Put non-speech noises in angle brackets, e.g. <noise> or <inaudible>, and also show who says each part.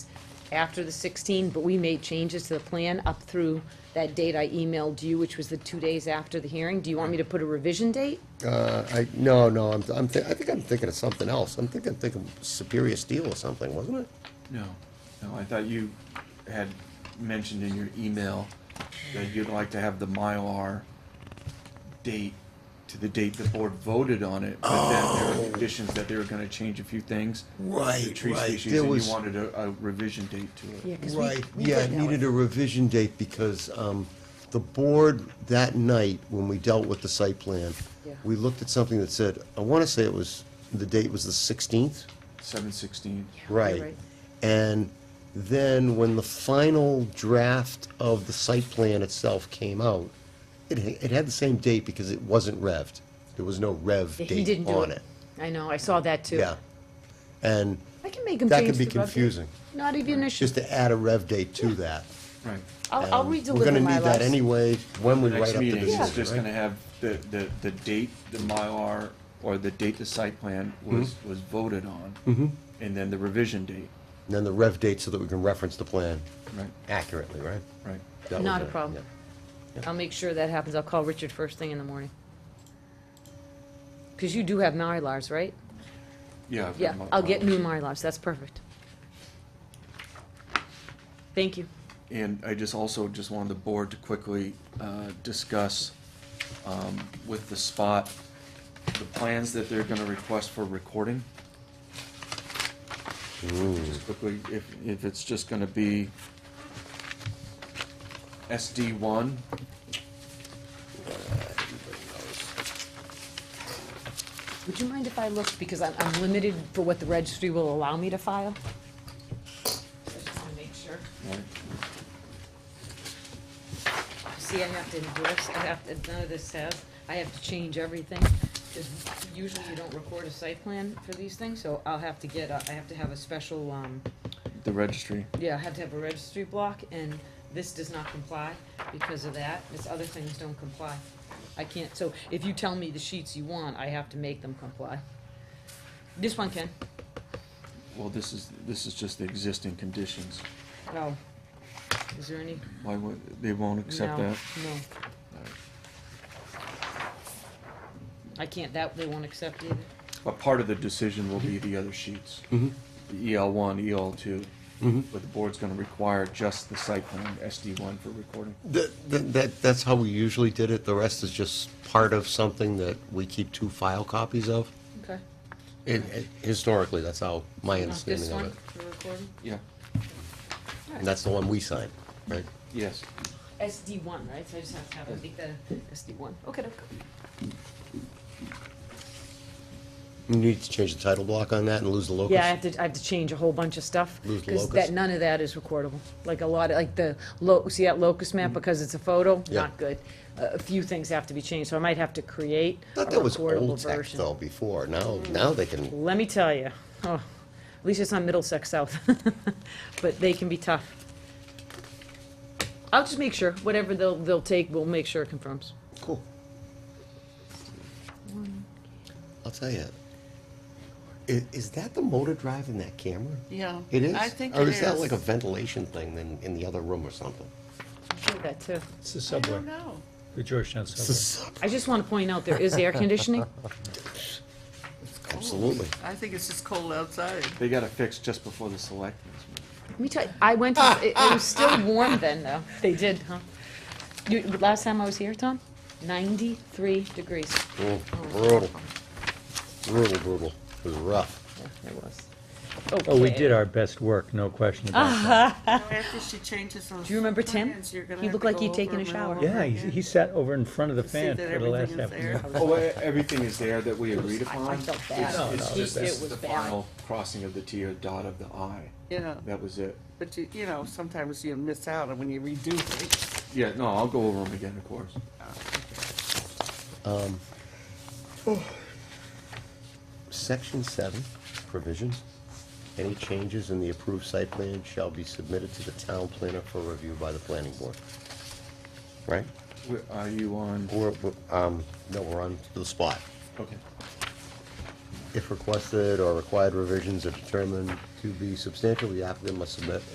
Speaker 1: after the 16, but we made changes to the plan up through that date I emailed you, which was the two days after the hearing. Do you want me to put a revision date?
Speaker 2: Uh, I, no, no, I'm, I'm, thi- I think I'm thinking of something else. I'm thinking, thinking Superior Steel or something, wasn't it?
Speaker 3: No, no, I thought you had mentioned in your email that you'd like to have the Mylar date to the date the board voted on it, but then there were conditions that they were gonna change a few things.
Speaker 2: Oh. Right,
Speaker 3: The tree
Speaker 2: right.
Speaker 3: species,
Speaker 2: There
Speaker 3: and
Speaker 2: was-
Speaker 3: you wanted a, a revision date to it.
Speaker 1: Yeah, 'cause we-
Speaker 2: Right,
Speaker 1: we
Speaker 2: yeah,
Speaker 1: did
Speaker 2: it
Speaker 1: that one.
Speaker 2: needed a revision date because um, the board that night, when we dealt with the site plan,
Speaker 1: Yeah.
Speaker 2: we looked at something that said, I want to say it was, the date was the 16th?
Speaker 3: Seven sixteen.
Speaker 1: you're
Speaker 2: Right.
Speaker 1: right.
Speaker 2: And then when the final draft of the site plan itself came out, it, ha- it had the same date because it wasn't revved. There was no rev
Speaker 1: Yeah, He didn't
Speaker 2: date
Speaker 1: do
Speaker 2: on it.
Speaker 1: I know, I saw that too.
Speaker 2: Yeah. And
Speaker 1: I can make him
Speaker 2: that
Speaker 1: change the
Speaker 2: could be
Speaker 1: rev date.
Speaker 2: confusing,
Speaker 1: Not even an issue.
Speaker 2: just to add a rev date to that.
Speaker 3: Right.
Speaker 1: I'll, I'll
Speaker 2: Um,
Speaker 1: redeliver my last.
Speaker 2: We're gonna need that anyway, when we write up
Speaker 3: Next
Speaker 2: the
Speaker 3: meeting is just
Speaker 2: decision,
Speaker 3: gonna
Speaker 2: right?
Speaker 3: have the, the, the date the Mylar, or the date the site plan
Speaker 2: Mm-hmm.
Speaker 3: was, was voted on. And then the revision date,
Speaker 2: And then the rev date so that we can reference the plan
Speaker 3: right,
Speaker 2: accurately, right?
Speaker 3: right.
Speaker 2: That was
Speaker 1: Not a
Speaker 2: it,
Speaker 1: problem.
Speaker 2: yeah.
Speaker 1: I'll make sure that happens. I'll call Richard first thing in the morning. Because you do have Mylars, right?
Speaker 3: Yeah. I've got
Speaker 1: Yeah,
Speaker 3: my-
Speaker 1: I'll get
Speaker 3: my-
Speaker 1: new Mylars. That's perfect. Thank you.
Speaker 3: And I just also just wanted the board to quickly uh, discuss um, with the spot, the plans that they're gonna request for recording. Just quickly, if, if it's just gonna be SD one,
Speaker 1: Would you mind if I looked? Because I'm, I'm limited for what the registry will allow me to file. I just want to make sure.
Speaker 3: right?
Speaker 1: See, I have to endorse, I have to, none of this has, I have to change everything. Because usually you don't record a site plan for these things, so I'll have to get, a- I have to have a special, um,
Speaker 3: the registry.
Speaker 1: yeah, I have to have a registry block, and this does not comply because of that, this other things don't comply. I can't, so if you tell me the sheets you want, I have to make them comply. This one can,
Speaker 3: Well, this is, this is just the existing conditions.
Speaker 1: no. Is there any?
Speaker 3: Why would, they won't accept
Speaker 1: No,
Speaker 3: that?
Speaker 1: No. I can't, that, they won't accept either.
Speaker 3: But part of the decision will be the other sheets. The EL one, EL 2 But the board's gonna require just the site plan, SD one for recording.
Speaker 2: That, that- that, that's how we usually did it, the rest is just part of something that we keep two file copies of.
Speaker 1: Okay.
Speaker 2: It, it- historically, that's how my
Speaker 1: Not This
Speaker 2: understanding of
Speaker 1: one
Speaker 2: it.
Speaker 1: for recording?
Speaker 3: Yeah,
Speaker 2: And that's the one we signed, right?
Speaker 3: yes.
Speaker 1: SD one, right? So I just have to have, I think the SD one. Okay, okay.
Speaker 2: You need to change the title block on that and lose the locus?
Speaker 1: Yeah, I have to, I have to change a whole bunch of stuff.
Speaker 2: Lose the
Speaker 1: Because
Speaker 2: locus.
Speaker 1: that, none of that is recordable. Like a lot, of like the lo, see that locus map, because it's a photo?
Speaker 2: Mm-hmm. Yeah.
Speaker 1: Not good. A a few things have to be changed, so I might have to create a
Speaker 2: Thought that was
Speaker 1: recordable
Speaker 2: old tech
Speaker 1: version.
Speaker 2: though before, now, now they can,
Speaker 1: Let me tell you, oh, at least it's not Middlesex South, <laughs> but they can be tough. I'll just make sure, whatever they'll, they'll take, we'll make sure it confirms.
Speaker 2: cool. I'll tell you, i- is that the motor drive in that camera?
Speaker 4: Yeah.
Speaker 2: It is?
Speaker 4: I think
Speaker 2: Or
Speaker 4: it
Speaker 2: is
Speaker 4: is.
Speaker 2: that like a ventilation thing in, in the other room or something?
Speaker 1: I'll do that too.
Speaker 5: It's the
Speaker 4: I
Speaker 5: subway,
Speaker 4: don't know.
Speaker 5: the Georgetown subway.
Speaker 1: I just want to point out, there is air <laughs> conditioning.
Speaker 2: Absolutely.
Speaker 4: I think it's just
Speaker 1: <laughs>
Speaker 4: cold outside.
Speaker 3: They gotta fix just before the selectmen's meeting.
Speaker 1: Let me tell you, I went, to- it it was still warm then, though. <laughs> They did, huh? You, last time I was here, Tom, 93 degrees.
Speaker 2: Oh, Brutal. Brutal, brutal. It was rough.
Speaker 1: Yeah, it was.
Speaker 5: Oh, we
Speaker 1: Okay.
Speaker 5: did our best work, no question about that.
Speaker 4: After she changes those.
Speaker 1: Do you remember Tim?
Speaker 4: plans, you're gonna
Speaker 1: He
Speaker 4: have
Speaker 1: looked
Speaker 4: to
Speaker 1: like
Speaker 4: go
Speaker 1: he'd taken
Speaker 4: over
Speaker 1: a
Speaker 4: them
Speaker 1: shower.
Speaker 4: all
Speaker 5: Yeah, he,
Speaker 4: again.
Speaker 5: he sat over in front of the
Speaker 4: See
Speaker 5: fan
Speaker 4: that
Speaker 5: for the last
Speaker 4: everything is
Speaker 5: half
Speaker 4: there.
Speaker 5: hour.
Speaker 3: Oh, e- everything is there that we agreed
Speaker 1: I- I
Speaker 3: upon?
Speaker 1: felt
Speaker 3: It's-
Speaker 1: bad.
Speaker 5: No,
Speaker 3: It's
Speaker 5: no,
Speaker 3: just
Speaker 5: it
Speaker 3: this
Speaker 1: was
Speaker 3: the
Speaker 1: bad.
Speaker 3: final crossing of the T or dot of the I.
Speaker 4: Yeah,
Speaker 3: That was it.
Speaker 4: but you, you know, sometimes you miss out on when you redo things.
Speaker 3: Yeah, no, I'll go over them again, of course.
Speaker 2: Section seven, provisions. Any changes in the approved site plan shall be submitted to the town planner for review by the planning board. Right?
Speaker 3: Where- Are you on?
Speaker 2: Or, um, no, we're on to the spot.
Speaker 3: Okay.
Speaker 2: If requested or required revisions are determined to be substantial, the applicant must submit